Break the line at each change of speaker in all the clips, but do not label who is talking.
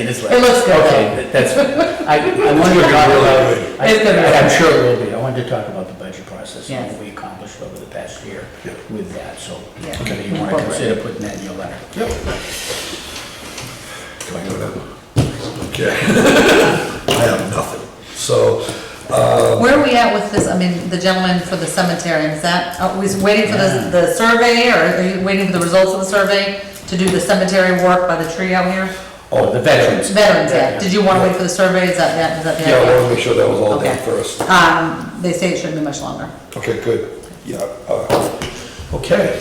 It
It looks good, though.
Okay, that's, I, I wanted to talk about,
It's gonna be
I- I'm
good.
sure it will be. I wanted to talk about the budget process and
Yes.
what we accomplished over the past year
Yeah.
with that, so.
Yeah.
Whether you want to
Incorporate.
consider putting that in your letter.
Yep. Can I go now? Okay. I have nothing. So,
Where are we at with this, I mean, the gentleman for the cemetery, is that, are we waiting for the, the survey, or are you waiting for the results of the survey to do the cemetery work by the tree out here?
Oh, the veterans.
Veterans, yeah, did you wanna wait for the survey, is that, that- is that the
yeah, I
idea?
wanted to make sure that was all done
Okay.
first.
Um, they say it shouldn't be much longer.
Okay, good. Yeah, uh, okay.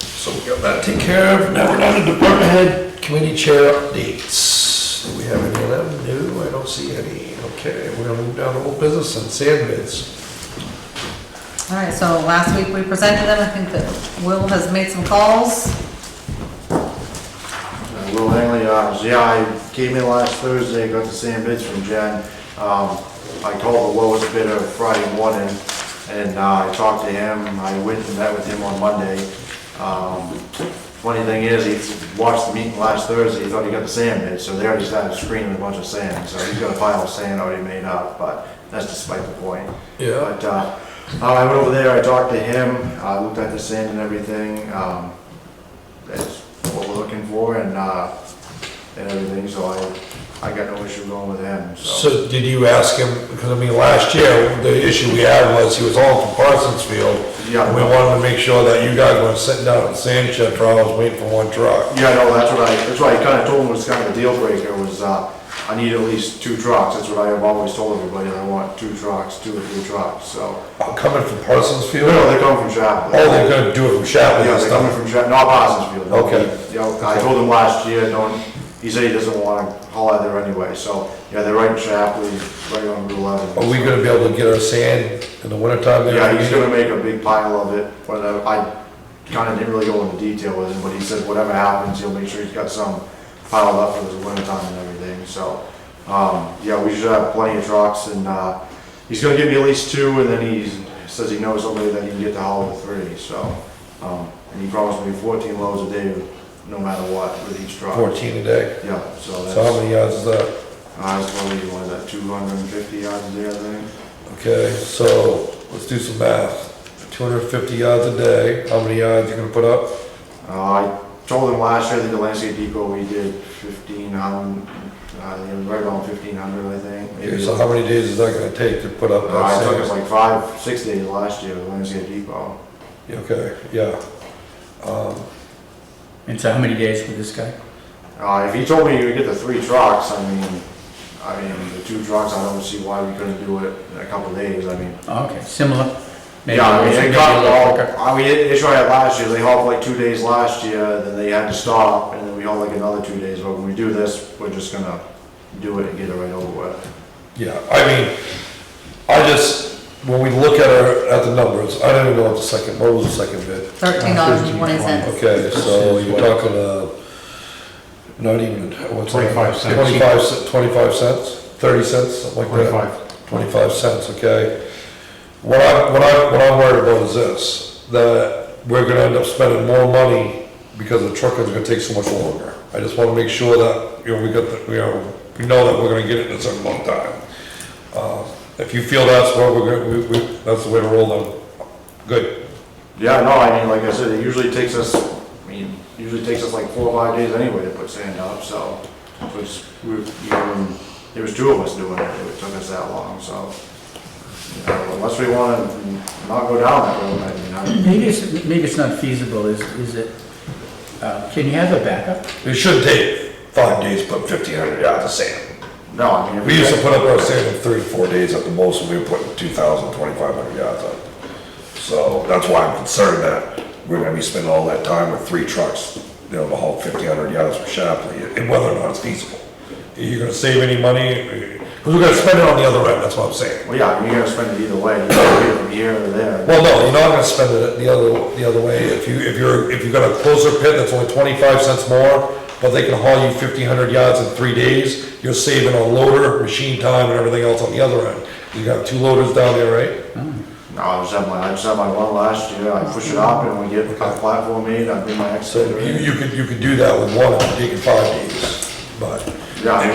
So we got that taken care of. Now we're down to department head committee chair updates. Do we have any of them? No, I don't see any. Okay, we're gonna move down to old business and sand bids.
All right, so last week we presented them, I think that Will has made some calls.
Uh, Will Langley, uh, yeah, I came in last Thursday, got the same bids from Jen. Um, I called the lowest bidder Friday morning, and uh, I talked to him, I went and met with him on Monday. Um, Funny thing is, he watched the meeting last Thursday, he thought he got the sand bid, so they already started screening a bunch of sand, so he's got a pile of sand already made up, but that's despite the point.
Yeah.
But, uh, I went over there, I talked to him, I looked at the sand and everything, um, that's what we're looking for and, uh, and everything, so I, I got no issue going with him, so.
So did you ask him, because I mean, last year, the issue we had was he was all from Parsons Field.
Yeah.
And we wanted to make sure that you guys weren't sitting down at the sand shed for hours waiting for one truck.
Yeah, no, that's what I, that's what I kinda told him was kind of a deal breaker was, uh, I need at least two trucks, that's what I have always told everybody, I want two trucks, two or three trucks, so.
I'm Uh, Coming from Parsons
No,
Field?
no,
Oh,
they're coming from Chaplin.
they're gonna do it from Chaplin
Yeah,
and
they're coming
stuff.
from, Chap- not Parsonsfield. no.
Okay.
Yeah, I told him last year, don't, he said he doesn't want to haul out there anyway, so, yeah, they're right in Chapley, right on Route 11.
Are we gonna be able to get our sand in the wintertime? there?
Yeah, he's gonna make a big pile of it, but uh, I kinda didn't really go into detail with him, but he said whatever happens, he'll make sure he's got some piled up for the winter time and everything, so. Um, yeah, we should have plenty of trucks and, uh, he's gonna give me at least two and then he says he knows somebody that he can get to haul with three, so. Um, and he promised me fourteen loads a day, no matter what, with each truck.
Fourteen a day.
Yeah, so
So how
that's,
many yards is that?
I was probably, what is that, two hundred and fifty yards a day, I think?
Okay, so let's do some math. Two hundred and fifty yards a day, how many yards you gonna put up?
Uh, I told them last year that the landscape depot, we did fifteen hundred, uh, it was right around fifteen hundred, I think.
Okay,
maybe.
So how many days is that gonna take to put up
Uh,
that
it took us
sand?
like five, six days last year, the landscape depot.
Okay, yeah. Um,
And so how many days with this guy?
Uh, if he told me you could get the three trucks, I mean, I mean, the two trucks, I don't see why we couldn't do it in a couple of days, I mean.
Oh, Okay, similar. Maybe
Yeah, I mean,
maybe
it
a
got,
little
all-
quicker.
I mean, the issue I had last year, they hauled like two days last year, then they had to stop, and then we hauled like another two days, but when we do this, we're just gonna do it and get it right over with.
Yeah, I mean, I just, when we look at our, at the numbers, I don't even know what the second, what was the second bid?
Thirteen dollars and twenty cents.
Okay, so you're talking, uh, not even, what's that?
25 cents.
Twenty-five, ce- twenty-five cents, thirty cents, something like that.
25.
Twenty-five cents, okay? What I, what I, what I'm worried about is this, that we're gonna end up spending more money because the trucking's gonna take so much longer. I just wanna make sure that, you know, we got, the- you know, we know that we're gonna get it in a certain amount of time. Uh, If you feel that's what we're gonna, we, we, that's the way to roll, then, good.
Yeah, no, I mean, like I said, it usually takes us, I mean, usually takes us like four or five days anyway to put sand up, so. It was, we, you know, and there was two of us doing it, it took us that long, so. you know, Unless we wanna not go down that road, I mean, I,
Maybe it's, maybe it's not feasible, is, is it, uh, can you have a backup?
It should take five days, but fifteen hundred yards of sand.
no, I mean. if
We used to put up our sand in three to four days at the most, and we were putting two thousand, twenty-five hundred yards up. So that's why I'm concerned that we're gonna be spending all that time with three trucks, you know, to haul fifteen hundred yards from Shapley, and whether or not it's feasible. Are you gonna save any money? Cause we're gonna spend it on the other end, that's what I'm saying.
Well, yeah, you're gonna spend it either way, you're gonna be from here or there.
Well, no, you're not gonna spend it the other, the other way. If you, if you're, if you've got a closer pit that's only twenty-five cents more, but they can haul you fifteen hundred yards in three days, you're saving on loader, machine time, and everything else on the other end. You got two loaders down there, right?
No, I just had my, I just had my one last year, I push it up and we get a platform made, I bring my
So
excavator
you,
in.
you could, you could do that with one, if you take it five days, but
Yeah.